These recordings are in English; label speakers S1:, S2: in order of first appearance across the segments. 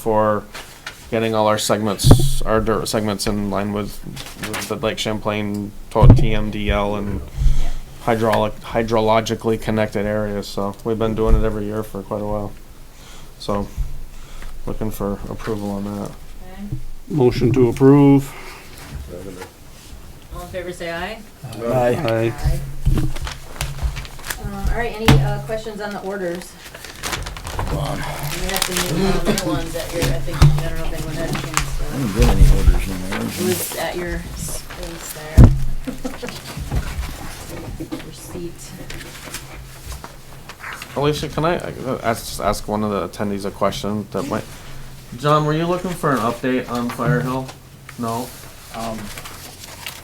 S1: for getting all our segments, our dirt segments in line with, with the Lake Champlain to TMDL and hydraulic, hydrologically connected areas, so we've been doing it every year for quite a while. So, looking for approval on that.
S2: Okay.
S3: Motion to approve.
S2: All in favor, say aye.
S3: Aye.
S2: Uh, all right, any, uh, questions on the orders? You have the new, uh, new ones at your, I think, I don't know if anyone had a chance
S4: I
S2: to,
S4: didn't get any orders in there.
S2: it was at your space there. Your seat.
S1: Alicia, can I uh, ask, ask one of the attendees a question that might? John, were you looking for an update on Fire Hill? No?
S5: Um,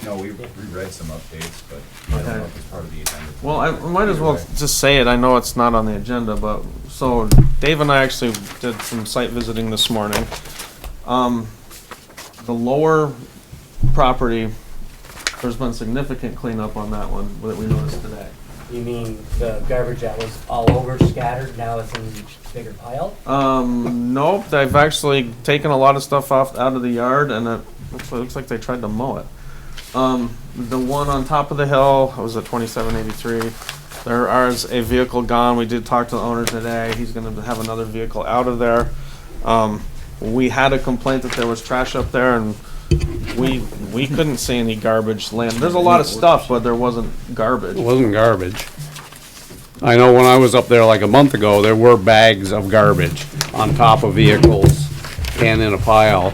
S5: no, we we read some updates, but I don't know if it's part of the agenda.
S1: Well, I I might as well
S5: Either way.
S1: just say it. I know it's not on the agenda, but so Dave and I actually did some site visiting this morning. Um, the lower property, there's been significant cleanup on that one that we noticed today.
S6: You mean the garbage that was all over scattered, now it's in a bigger pile?
S1: Um, nope, they've actually taken a lot of stuff off out of the yard, and it looks, it looks like they tried to mow it. Um, the one on top of the hill was a 2783. There is a vehicle gone. We did talk to the owner today. He's going to have another vehicle out of there. Um, we had a complaint that there was trash up there, and we we couldn't see any garbage land. There's a lot of stuff, but there wasn't
S3: It
S1: garbage.
S3: wasn't garbage. I know when I was up there like a month ago, there were bags of garbage on top of vehicles and in a pile,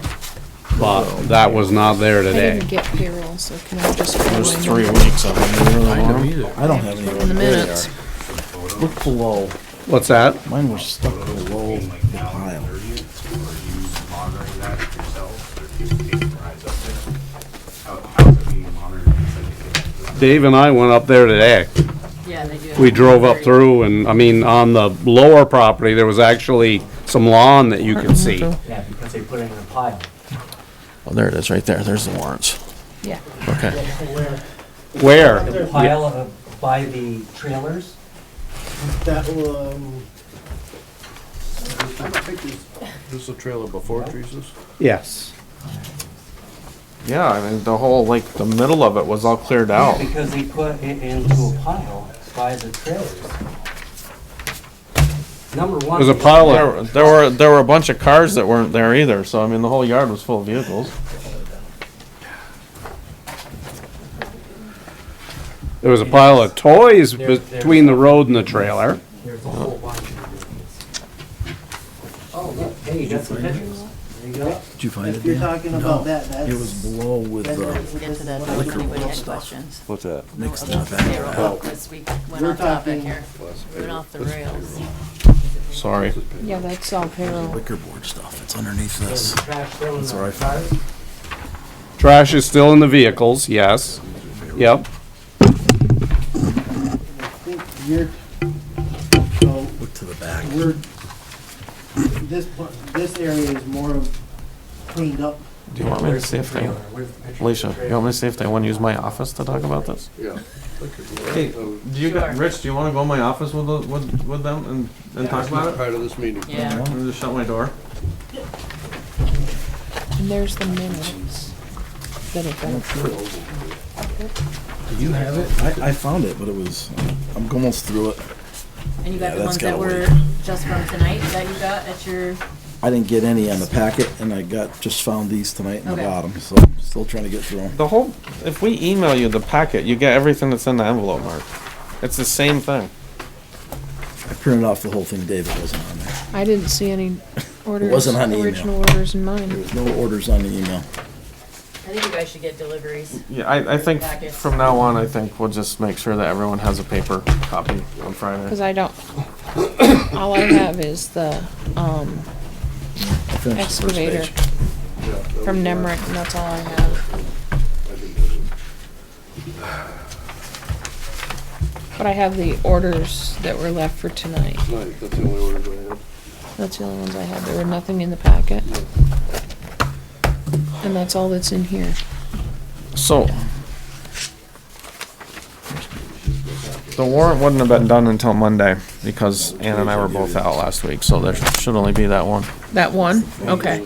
S3: but that was not there
S7: I
S3: today.
S7: didn't get payroll, so can I just?
S1: There's three weeks of it.
S4: I don't have any
S7: In the
S4: orders.
S7: minutes.
S4: Look below.
S3: What's that?
S4: Mine was stuck below
S5: Between, Like
S4: the
S5: now and
S4: pile.
S5: the thirtieth, are you monitoring that yourself, or do you keep your eyes up there? How, how's it being monitored? Is it- is it-
S3: Dave and I went up there today.
S2: Yeah, they do. have
S3: We drove up
S2: very-
S3: through and, I mean, on the lower property, there was actually some lawn that you could see.
S6: Yeah, because they put it in a pile.
S4: Oh, there it is, right there. There's the warrants.
S7: Yeah.
S4: Okay.
S3: Where?
S6: The pile of, by the trailers?
S8: That, um. This is a trailer before Jesus?
S3: Yes.
S1: Yeah, I mean the whole like the middle of it was all cleared out.
S6: Because they put it into a pile by the trailers. Number one.
S3: There's a pile of
S1: There, there were there were a bunch of cars that weren't there either. So I mean, the whole yard was full of vehicles.
S3: There was a pile of toys
S6: There- there's-
S3: between the road and the trailer.
S6: There's a whole bunch of these. Oh, look, hey, you got some pictures?
S4: Did you find it,
S8: You're
S4: Dan?
S8: talking about that, that's.
S4: It was below with the,
S2: We'll get to that, but if anybody had questions.
S9: What's that?
S4: mixed
S2: No,
S4: in the
S2: just
S4: back.
S2: payroll, 'cause we went
S8: We're
S2: off topic
S8: talking-
S2: here. We Went off the rails.
S1: Sorry.
S7: Yeah, that's all payroll.
S4: Liquor board stuff. It's underneath
S6: There's
S4: this.
S6: trash still in
S4: That's where I
S6: the
S4: found
S6: cars?
S3: Trash is still in the vehicles, yes. Yep.
S8: I think you're, so,
S4: Look to the back.
S8: we're, this, part- this area is more cleaned up.
S1: Do you want me to see if they,
S6: Where's the picture?
S1: Alicia? You want me to see if they want to use my office to talk about this?
S8: Yeah.
S1: Hey, do you, got- Rich? Do you want to go in my office with the, with with them and and talk about it?
S8: of this meeting.
S2: Yeah.
S1: Or just shut my door.
S7: And there's the minutes. that are done.
S4: Do you have it? I, I found it, but it was, I'm almost through it.
S2: And you got the
S4: Yeah, that's
S2: ones that
S4: gotta
S2: were
S4: wait.
S2: just from tonight that you got at your,
S4: I didn't get any on the packet and I got, just found these tonight in the
S2: Okay.
S4: bottom, so I'm still trying to get through them.
S1: The whole. If we email you the packet, you get everything that's in the envelope, Mark. It's the same thing.
S4: I printed off the whole thing, David wasn't on there.
S7: I didn't see any orders,
S4: wasn't on the email.
S7: original orders in
S4: There
S7: mine.
S4: was no orders on the email.
S2: I think you guys should get deliveries.
S1: Yeah, I, I think
S2: Packets.
S1: from now on, I think we'll just make sure that everyone has a paper copy on
S7: Cause
S1: Friday.
S7: I don't, all I have is the, um,
S4: I finished the first
S7: excavator
S4: page.
S7: from Nemrick and that's all I have. But I have the orders that were left for tonight.
S8: that's the only orders I have.
S7: That's the only ones I had. There were nothing in the packet. And that's all that's in here.
S1: So. The warrant wouldn't have been done until Monday. because Ann and I were both out last week, so there should only be that one.
S7: that one, okay.